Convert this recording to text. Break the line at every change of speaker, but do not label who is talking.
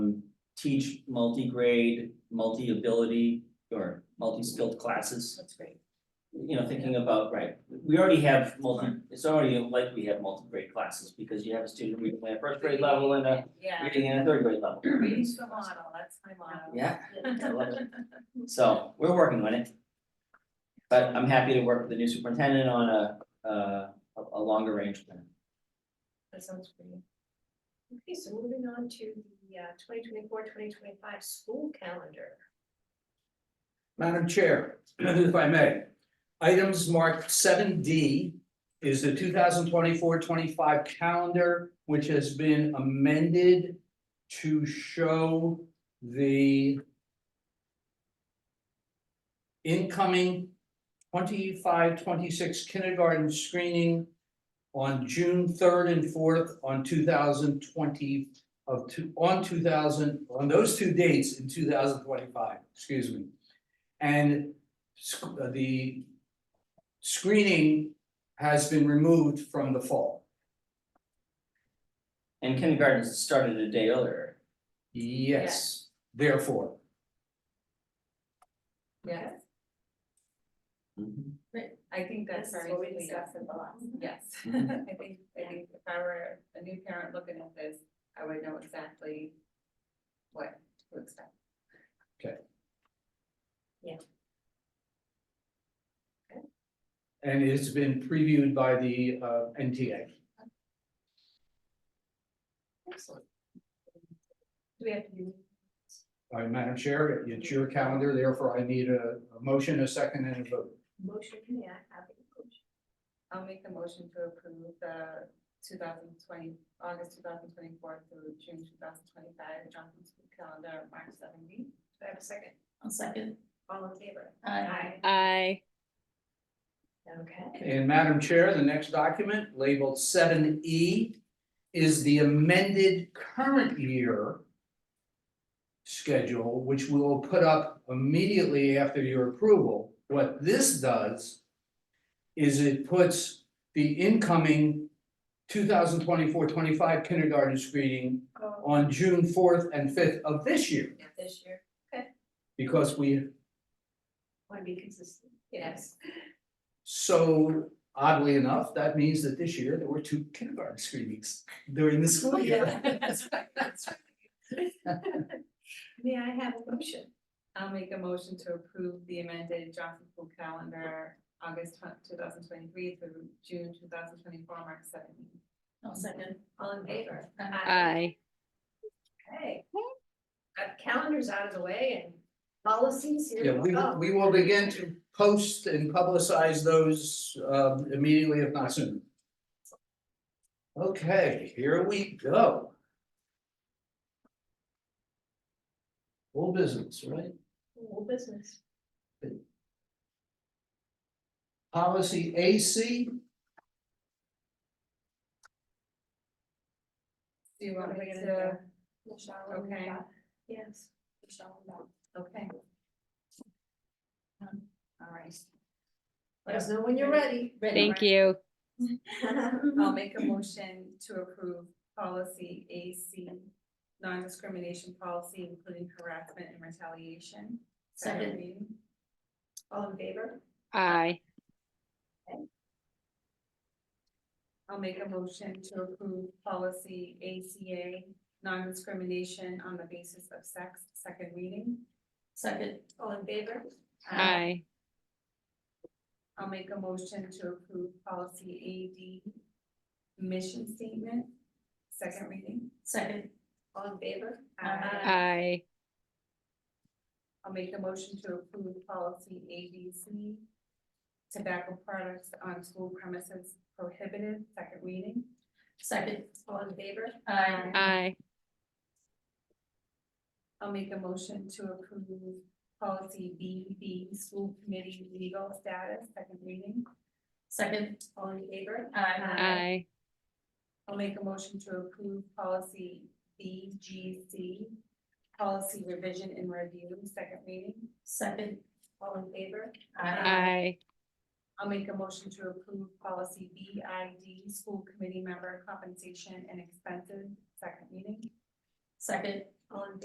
teach multi-grade, multi-ability, or multi-skilled classes.
That's great.
You know, thinking about, right, we already have multi, it's already like we have multi-grade classes, because you have a student reading at first grade level and a
Yeah,
reading at a third grade level.
reading's the model, that's my model.
Yeah, I love it. So we're working on it. But I'm happy to work with the new superintendent on a, uh, a, a longer range plan.
That sounds great. Okay, so moving on to the uh 2024-2025 school calendar.
Madam Chair, if I may, items marked seven D is the 2024-25 calendar, which has been amended to show the incoming 25-26 kindergarten screening on June third and fourth on two thousand twenty of two, on two thousand, on those two dates in two thousand twenty-five, excuse me. And sc- uh, the screening has been removed from the fall.
And kindergarten started a day earlier.
Yes, therefore,
Yes, I think that's
This is
very
what we
clear.
discussed at the last.
Yes,
Mhm.
I think, I think if I were a new parent looking at this, I would know exactly what to expect.
and it's been previewed by the uh NTA.
Excellent.
Do we have to do?
All right, Madam Chair, it's your calendar, therefore I need a a motion, a second and a vote.
Motion, may I have a motion?
I'll make a motion to approve the two thousand twenty, August two thousand twenty-four through June two thousand twenty-five, Johnson School Calendar, March seventy.
Do I have a second?
I'll second.
All in favor?
Aye.
Okay.
And Madam Chair, the next document labeled seven E is the amended current year schedule, which we will put up immediately after your approval. What this does is it puts the incoming 2024-25 kindergarten screening
Oh,
on June fourth and fifth of this year,
yeah, this year,
because we
want to be consistent.
Yes.
So oddly enough, that means that this year there were two kindergarten screenings during the school year.
Oh, That's right, that's right. May I have a motion?
I'll make a motion to approve the amended Johnson School Calendar, August two thousand twenty-three through June two thousand twenty-four, March seventeen.
I'll second.
All in favor?
Aye.
Okay. Got calendars out of the way and policies
Yeah,
here we
we
go.
we will begin to post and publicize those um immediately if not sooner. Okay, here we go. Full business, right?
Whole business.
Policy AC,
Do you want
What are
me
we gonna
to,
Michelle.
and Okay. Bob.
Yes. Michelle and Bob.
okay. Um, All right,
Let us know when you're ready.
Thank you.
I'll make a motion to approve policy AC, non-discrimination policy, including harassment and retaliation.
Second.
reading.
All in favor?
Aye.
I'll make a motion to approve policy ACA, non-discrimination on the basis of sex, second reading.
Second.
All in favor?
Aye.
I'll make a motion to approve policy AD, mission statement, second reading.
Second.
All in favor?
Aye.
Aye.
I'll make a motion to approve policy ABC, tobacco products on school premises prohibited, second reading.
Second.
All in favor?
Aye.
Aye.
I'll make a motion to approve policy BB, school committee legal status, second reading.
Second.
All in favor?
Aye.
Aye.
I'll make a motion to approve policy BGC, policy revision and review, second reading.
Second.
All in favor?
Aye.
I'll make a motion to approve policy BID, school committee member compensation and expenses, second reading.
Second.
All in